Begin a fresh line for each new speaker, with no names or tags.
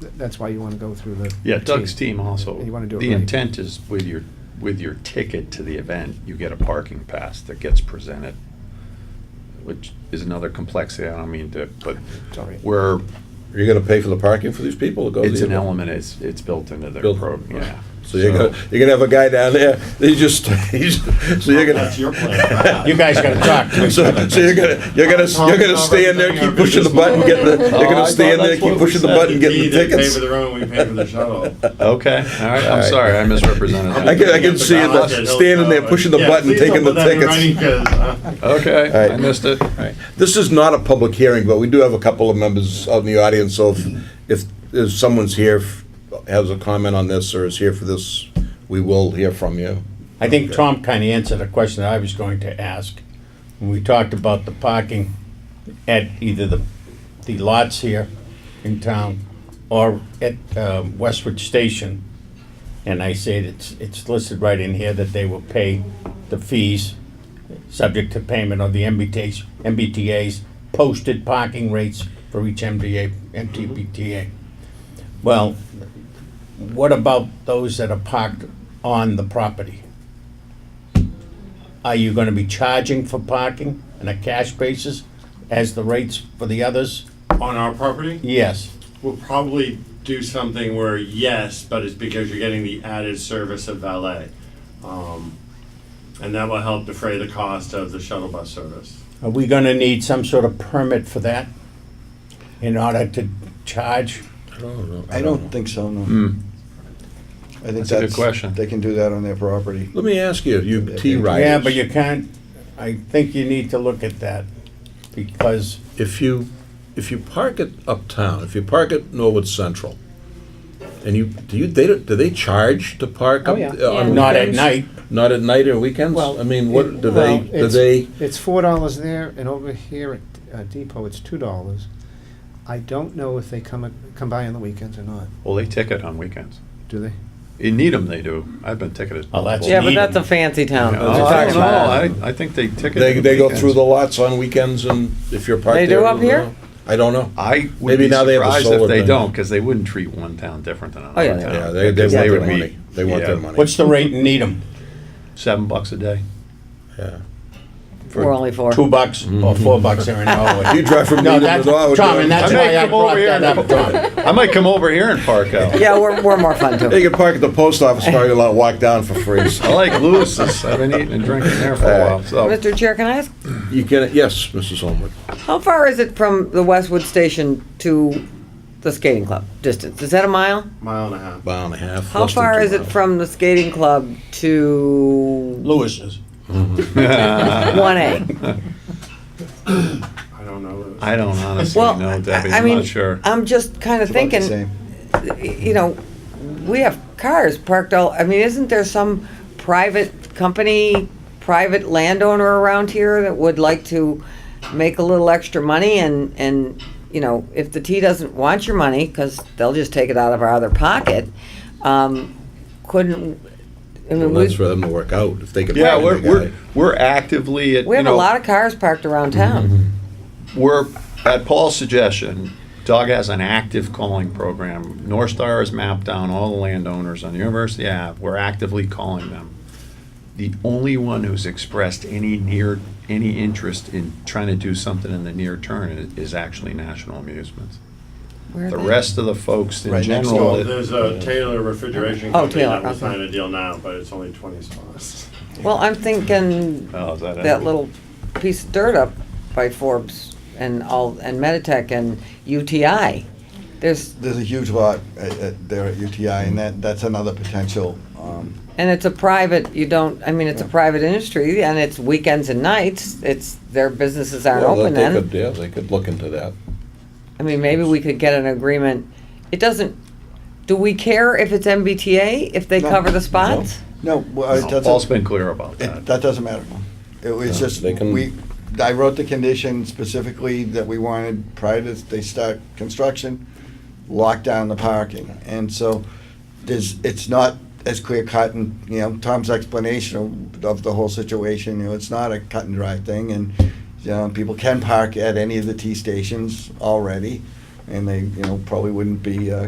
th- that's why you want to go through the.
Yeah,
the
Doug's team also.
You want to do it
The
right.
intent is with your, with your ticket to the event, you get a parking pass that gets presented, which is another complexity, I don't mean to, but
It's all right.
where
Are you gonna pay for the parking for these people to go to the
it's an
event?
element, it's, it's built into the
Built-
program, yeah.
So you're gonna, you're gonna have a guy down there, he just, he's, so you're gonna.
That's your plan.
You guys gotta talk to each
So,
other.
so you're gonna, you're gonna, you're gonna stay in there, keep pushing the button, get the, you're
Oh, I
gonna stay in
thought
there,
that's what
keep
we
pushing the
said.
button, get the
They pay
tickets.
for their own, we pay for the shuttle.
Okay, all right,
All
I'm
right.
sorry, I misrepresented that.
I can- I can see it, uh, standing there, pushing the button, taking the tickets.
uh,
All
Okay,
right.
I missed it.
This is not a public hearing, but we do have a couple of members out in the audience, so if, if, if someone's here, f- has a comment on this, or is here for this, we will hear from you.
I think Tom kinda answered a question that I was going to ask. When we talked about the parking at either the, the lots here in town or at, um, Westwood Station. And I said it's, it's listed right in here that they will pay the fees subject to payment of the MBTA's, MBTA's posted parking rates for each MDA, MTBTA. Well, what about those that are parked on the property? Are you gonna be charging for parking on a cash basis as the rates for the others?
On our property,
Yes,
we'll probably do something where yes, but it's because you're getting the added service of valet. Um, And that will help defray the cost of the shuttle bus service.
are we gonna need some sort of permit for that in order to charge?
I don't think so, no. I think
That's a good question.
They can do that on their property.
Let me ask you, you T-riders.
Yeah, but you can't, I think you need to look at that because
if you, if you park it uptown, if you park at Norwood Central, and you, do you, they, don't- do they charge to park
Oh,
up
yeah.
uh, on
not at
weekends?
night,
Not at night or weekends?
Well,
I mean, what, do
Well,
they, do
it's-
they,
It's four dollars there, and over here at uh, Depot, it's two dollars. I don't know if they come, a- come by on the weekends or not,
Well, they ticket on weekends.
do they?
In Needham, they do. I've been ticketed.
Oh, that's-
multiple-
Yeah, but that's a fancy town.
Yeah,
That's
oh,
what
I
I'm
don't
talking
know. I, I think they ticket.
they,
on
they go
weekends.
through the lots on weekends and if you're parked
They
there?
do up
you
here?
know? I don't know.
I would
Maybe
be
now they have a
surprised
solar
if they
thing.
don't, because they wouldn't treat one town different than another
Oh, yeah,
town.
Yeah, they, they
because
want their
would be-
money. They want their
yeah,
money.
what's the rate in Needham?
Seven bucks a day.
Yeah.
We're only four.
Two bucks or four bucks here in Norwood.
You drive from
No,
Needham to
that's,
Norwood.
Tom, and
I
that's
may
why I
come over
brought
here
that
and
up, Tom.
I might come over here and park out.
Yeah, we're, we're more fun
They
too.
can park at the post office parking lot, walk down for free.
I like Lewis's. I've been eating and drinking there for a
Uh,
while. So
Mr. Chair, can I ask,
You can, yes, Mrs. Holmwood.
how far is it from the Westwood Station to the skating club distance? Is that a mile?
Mile and a half.
Mile and a half.
How
less than
far
two
is it
miles.
from the skating club to
Lewis's.
one A?
I don't know.
I don't honestly
Well,
know, Debbie.
I- I
I'm
mean, uh,
not sure.
I'm just kind
It's
of
about the
thinking,
same.
you know, we have cars parked all, I mean, isn't there some private company, private landowner around here that would like to make a little extra money and, and, you know, if the T doesn't want your money, because they'll just take it out of our other pocket, um, couldn't, I mean,
Well, that's
we,
for them to work out, if they can.
Yeah,
find
we're,
the
we're,
guy.
we're actively at,
we
you
have a lot
know, Mm-hmm.
of cars parked around town.
we're, at Paul's suggestion, Doug has an active calling program. North Star has mapped down all the landowners on University Ave. We're actively calling them. The only one who's expressed any near, any interest in trying to do something in the near term i- is actually National Amusements.
Where are
The
they?
rest of the folks in
Right next
general. that-
There's a Taylor refrigeration
Oh,
company
Taylor,
that will
okay.
sign a deal now, but it's only twenty spots.
Well, I'm thinking
Oh, is that it?
that little piece of dirt up by Forbes and all, and Meditech and UTI. There's,
There's a huge lot at, at, there at UTI, and that, that's another potential, um,
and it's a private, you don't, I mean, it's a private industry and it's weekends and nights. It's, their businesses aren't
Well,
open
they
then.
could- Yeah, they could look into that.
I mean, maybe we could get an agreement. It doesn't, do we care if it's MBTA, if they
No.
cover the spots?
no, well, it
No, Paul's
doesn't,
been clear about
it,
that.
that doesn't matter. It was
No,
just,
they can-
we, I wrote the condition specifically that we wanted prior to, they start construction, lock down the parking, and so there's, it's not as clear cut and, you know, Tom's explanation of, of the whole situation, you know, it's not a cut and dry thing and, you know, people can park at any of the T stations already and they, you know, probably wouldn't be, uh,